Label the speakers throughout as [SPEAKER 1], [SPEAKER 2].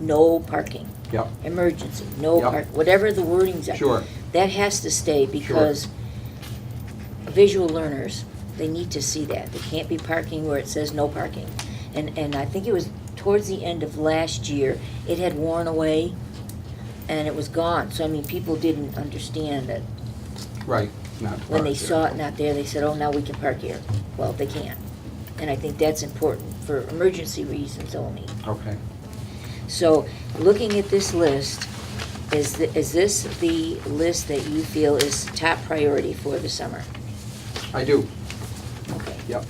[SPEAKER 1] no parking.
[SPEAKER 2] Yep.
[SPEAKER 1] Emergency, no
[SPEAKER 2] Yep.
[SPEAKER 1] park, whatever the wording's are.
[SPEAKER 2] Sure.
[SPEAKER 1] That has to stay because visual learners, they need to see that. They can't be parking where it says no parking. And, and I think it was towards the end of last year, it had worn away and it was gone. So I mean, people didn't understand that
[SPEAKER 2] Right, not
[SPEAKER 1] when they
[SPEAKER 2] parked there.
[SPEAKER 1] saw it not there, they said, oh, now we can park here. Well, they can't. And I think that's important for emergency reasons only.
[SPEAKER 2] Okay,
[SPEAKER 1] So, looking at this list, is, th- is this the list that you feel is top priority for the summer?
[SPEAKER 2] I do,
[SPEAKER 1] Okay.
[SPEAKER 2] yep,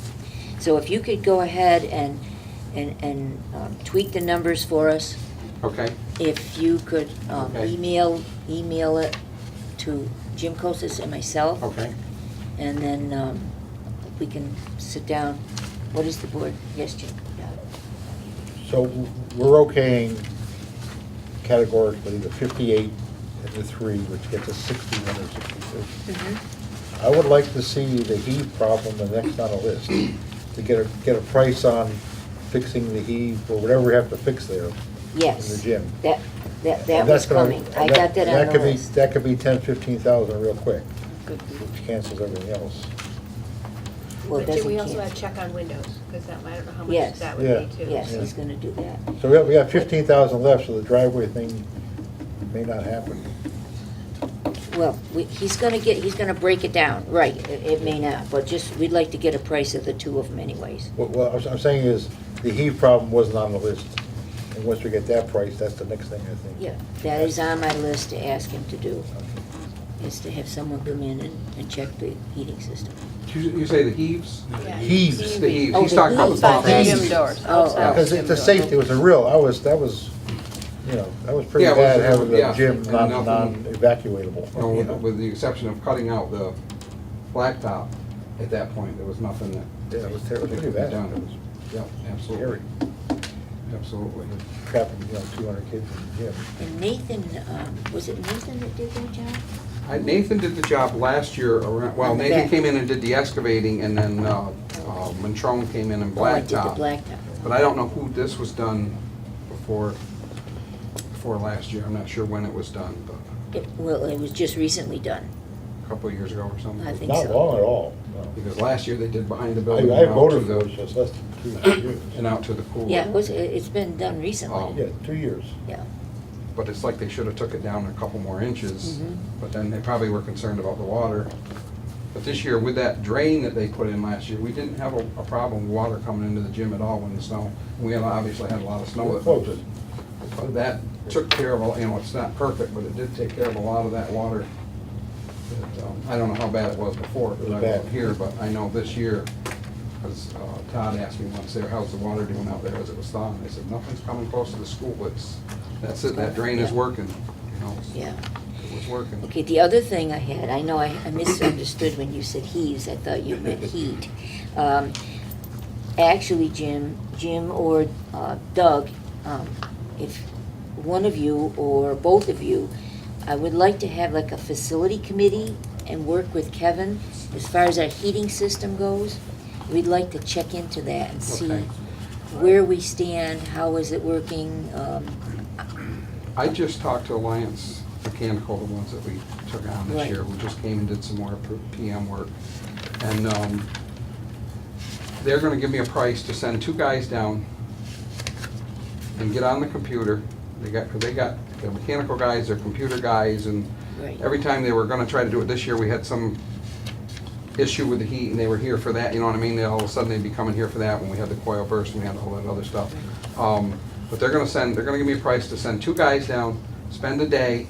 [SPEAKER 1] So if you could go ahead and, and, and um, tweak the numbers for us,
[SPEAKER 2] okay,
[SPEAKER 1] if you could um,
[SPEAKER 2] Okay.
[SPEAKER 1] email, email it to Jim Kosis and myself.
[SPEAKER 2] okay.
[SPEAKER 1] And then um, we can sit down. What is the board? Yes, Jim?
[SPEAKER 3] So we're okaying categorically the 58 and the 3, which gets us 61 or 62. I would like to see the heave problem, and that's not a list, to get a, get a price on fixing the heave or whatever we have to fix there.
[SPEAKER 1] Yes.
[SPEAKER 3] In the gym.
[SPEAKER 1] That, that, that was
[SPEAKER 3] And that's gonna-
[SPEAKER 1] coming. I got that
[SPEAKER 3] that
[SPEAKER 1] on the
[SPEAKER 3] could be-
[SPEAKER 1] list.
[SPEAKER 3] That could be 10, 15,000 real quick,
[SPEAKER 1] Could be.
[SPEAKER 3] which cancels everything else.
[SPEAKER 1] Well,
[SPEAKER 4] But do
[SPEAKER 1] doesn't
[SPEAKER 4] we also have
[SPEAKER 1] count.
[SPEAKER 4] check on windows, because that, I don't know how
[SPEAKER 1] Yes.
[SPEAKER 4] much that
[SPEAKER 3] Yeah.
[SPEAKER 4] would be too.
[SPEAKER 1] Yes,
[SPEAKER 3] Yeah.
[SPEAKER 1] he's gonna do that.
[SPEAKER 3] So we have, we have 15,000 left, so the driveway thing may not happen.
[SPEAKER 1] Well, we- he's gonna get, he's gonna break it down, right, it it may not, but just, we'd like to get a price of the two of them anyways.
[SPEAKER 3] What, what I'm- I'm saying is, the heave problem wasn't on the list, and once we get that price, that's the next thing, I think.
[SPEAKER 1] Yeah, that is um, on my list to ask him to do, is to have someone come in and, and check the heating system.
[SPEAKER 2] You you say the heaves?
[SPEAKER 4] Yeah.
[SPEAKER 3] Heaves.
[SPEAKER 2] It's
[SPEAKER 3] Heaves.
[SPEAKER 2] the heaves,
[SPEAKER 1] Oh,
[SPEAKER 2] he's
[SPEAKER 1] the
[SPEAKER 2] talking about the
[SPEAKER 1] heaves.
[SPEAKER 2] pump.
[SPEAKER 1] Outside
[SPEAKER 3] the
[SPEAKER 1] gym
[SPEAKER 4] doors,
[SPEAKER 1] outside
[SPEAKER 3] Because it's a safety, it was a real, I was, that was, you know, that was pretty
[SPEAKER 2] Yeah, it was-
[SPEAKER 3] bad having
[SPEAKER 2] yeah,
[SPEAKER 3] the gym
[SPEAKER 2] and
[SPEAKER 3] non,
[SPEAKER 2] nothing-
[SPEAKER 3] non-evacuatable.
[SPEAKER 2] You know,
[SPEAKER 3] you
[SPEAKER 2] with,
[SPEAKER 3] know.
[SPEAKER 2] with the exception of cutting out the blacktop, at that point, there was nothing that.
[SPEAKER 3] Yeah, it was
[SPEAKER 2] that
[SPEAKER 3] terrible,
[SPEAKER 2] could
[SPEAKER 3] pretty
[SPEAKER 2] be
[SPEAKER 3] bad.
[SPEAKER 2] done. It was- Yep, absolutely,
[SPEAKER 3] Scary,
[SPEAKER 2] absolutely.
[SPEAKER 3] trapping, you know, two hundred kids in the gym.
[SPEAKER 1] And Nathan, um, was it Nathan that did that job?
[SPEAKER 2] I- Nathan did the job last year around, well,
[SPEAKER 1] On the
[SPEAKER 2] Nathan
[SPEAKER 1] back.
[SPEAKER 2] came in and did the excavating, and then, uh, uh, Montrone came in and
[SPEAKER 1] Oh, I did the
[SPEAKER 2] blacktop.
[SPEAKER 1] blacktop.
[SPEAKER 2] But I don't know who this was done before, before last year, I'm not sure when it was done, but
[SPEAKER 1] It- Well, it was just recently done,
[SPEAKER 2] a couple of years ago or something.
[SPEAKER 1] I think
[SPEAKER 3] Not
[SPEAKER 1] so.
[SPEAKER 3] long at all, no.
[SPEAKER 2] Because last year they did behind the building.
[SPEAKER 3] I, I
[SPEAKER 2] and out
[SPEAKER 3] voted
[SPEAKER 2] to
[SPEAKER 3] for it,
[SPEAKER 2] the-
[SPEAKER 3] just less than two years.
[SPEAKER 2] And out to the pool.
[SPEAKER 1] Yeah, it was, it- it's been done
[SPEAKER 2] Oh.
[SPEAKER 1] recently,
[SPEAKER 3] Yeah, two years.
[SPEAKER 1] yeah.
[SPEAKER 2] But it's like they should have took it down a couple more inches,
[SPEAKER 1] Mhm.
[SPEAKER 2] but then they probably were concerned about the water. But this year, with that drain that they put in last year, we didn't have a, a problem with water coming into the gym at all when the snow, we had obviously had a lot of snow that
[SPEAKER 3] Close.
[SPEAKER 2] floated. But that took care of, a- you know, it's not perfect, but it did take care of a lot of that water. that, um, I don't know how bad it was before,
[SPEAKER 3] It
[SPEAKER 2] because I
[SPEAKER 3] was
[SPEAKER 2] wasn't
[SPEAKER 3] bad.
[SPEAKER 2] here, but I know this year, because Todd asked me once there, how's the water doing out there as it was thawing? I said, nothing's coming close to the school, it's, that's it, that drain is
[SPEAKER 1] Yeah.
[SPEAKER 2] working, you know?
[SPEAKER 1] Yeah.
[SPEAKER 2] It was working.
[SPEAKER 1] Okay, the other thing I had, I know I I misunderstood when you said heaves, I thought you meant heat. Um, Actually, Jim, Jim or uh, Doug, um, if one of you or both of you, I would like to have like a facility committee and work with Kevin as far as our heating system goes. We'd like to check into that and see
[SPEAKER 2] Okay.
[SPEAKER 1] where we stand, how is it working, um,
[SPEAKER 2] I just talked to Alliance Mechanical, the ones that we took on this
[SPEAKER 1] Right.
[SPEAKER 2] year, who just came and did some more PM work. And um, they're gonna give me a price to send two guys down and get on the computer. They got, they got their mechanical guys, their computer guys, and
[SPEAKER 1] Right.
[SPEAKER 2] every time they were gonna try to do it this year, we had some issue with the heat, and they were here for that, you know what I mean? They, all of a sudden, they'd be coming here for that, when we had the coil burst, and we had all that other stuff. Um, But they're gonna send, they're gonna give me a price to send two guys down, spend a day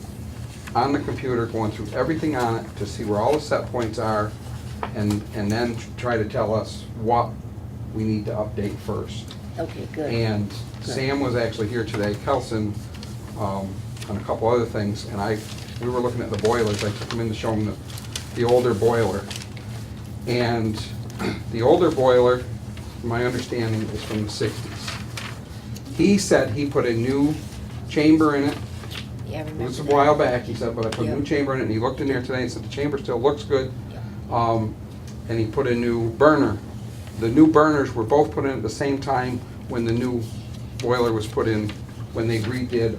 [SPEAKER 2] on the computer, going through everything on it, to see where all the set points are, and, and then try to tell us what we need to update first.
[SPEAKER 1] okay, good.
[SPEAKER 2] And Sam was actually here today, Kelson, um, on a couple other things, and I, we were looking at the boilers, I took him in to show him the, the older boiler. And the older boiler, my understanding, is from the sixties. He said he put a new chamber in it,
[SPEAKER 1] Yeah, I
[SPEAKER 2] it
[SPEAKER 1] remember
[SPEAKER 2] was a
[SPEAKER 1] that.
[SPEAKER 2] while back, he said, but I put a
[SPEAKER 1] Yeah.
[SPEAKER 2] new chamber in it, and he looked in there today and said, the chamber still looks good.
[SPEAKER 1] Yeah.
[SPEAKER 2] Um, and he put a new burner. The new burners were both put in at the same time when the new boiler was put in when they redid